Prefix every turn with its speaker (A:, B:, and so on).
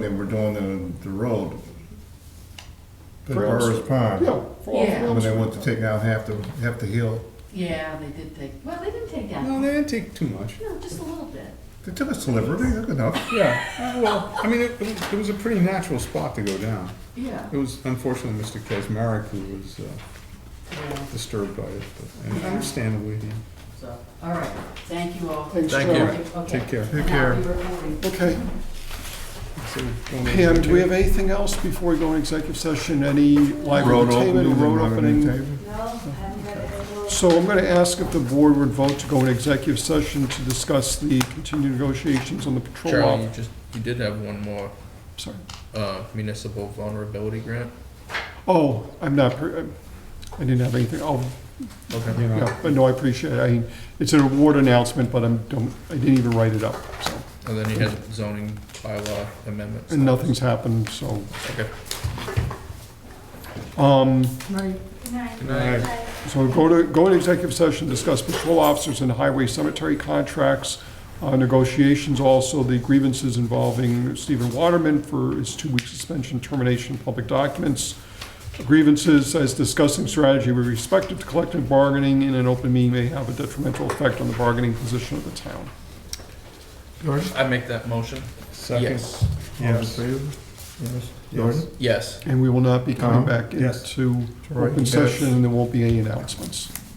A: that we're doing the, the road. The
B: Correct.
A: Burris Pond.
B: Yeah. for-
C: Yeah.
A: When they want to take out half the, half the hill.
C: Yeah, they did take, well, they didn't take that.
D: No, they didn't take too much.
C: No, just a little bit.
A: They took a sliver, they took enough.
D: Yeah, uh, well, I mean, it, it was- it was a pretty natural spot to go down.
C: Yeah.
D: It was unfortunately Mr. Kazmarek who was uh,
C: Yeah,
D: disturbed by it, but and
C: Yeah.
D: understandably, yeah.
C: so, all right. Thank you all.
B: Thanks,
E: Thank
B: Joe.
E: you.
C: Okay.
D: Take care.
A: Take
C: Now
A: care.
C: we recording.
B: Okay,
D: So, going over
B: Pam,
D: to
B: do we have
D: Jim.
B: anything else before we go into executive session? Any live
A: Road
B: entertainment,
A: opening.
B: road opening?
A: entertainment.
F: No, I haven't read it. I will-
B: So I'm going to ask if the board would vote to go into executive session to discuss the continued negotiations on the patrol
E: Charlie, you
B: officer.
E: just, you did have one more,
B: Sorry.
E: uh, municipal vulnerability grant.
B: Oh, I'm not, per- I didn't have anything, oh,
D: You know,
B: yeah, but no, I appreciate it. I, it's an award announcement, but I'm, don't, I didn't even write it up, so,
E: And then you had zoning bylaw amendments.
B: and nothing's happened, so.
E: Okay.
B: Um,
F: Good night.
E: Good night.
F: Bye.
B: So go to, go into executive session, discuss patrol officers and highway cemetery contracts, uh, negotiations, also the grievances involving Stephen Waterman for his two-week suspension, termination, of public documents, grievances as discussing strategy with respect to collective bargaining in an open meeting may have a detrimental effect on the bargaining position of the town.
E: I make that motion?
D: Second,
E: Yes.
D: yes. Yes.
E: Yes.
B: And we will not be coming
A: Uh-huh.
B: back
D: Yes.
B: into
A: Troy?
B: open
A: Yes.
B: session, and there won't be any announcements.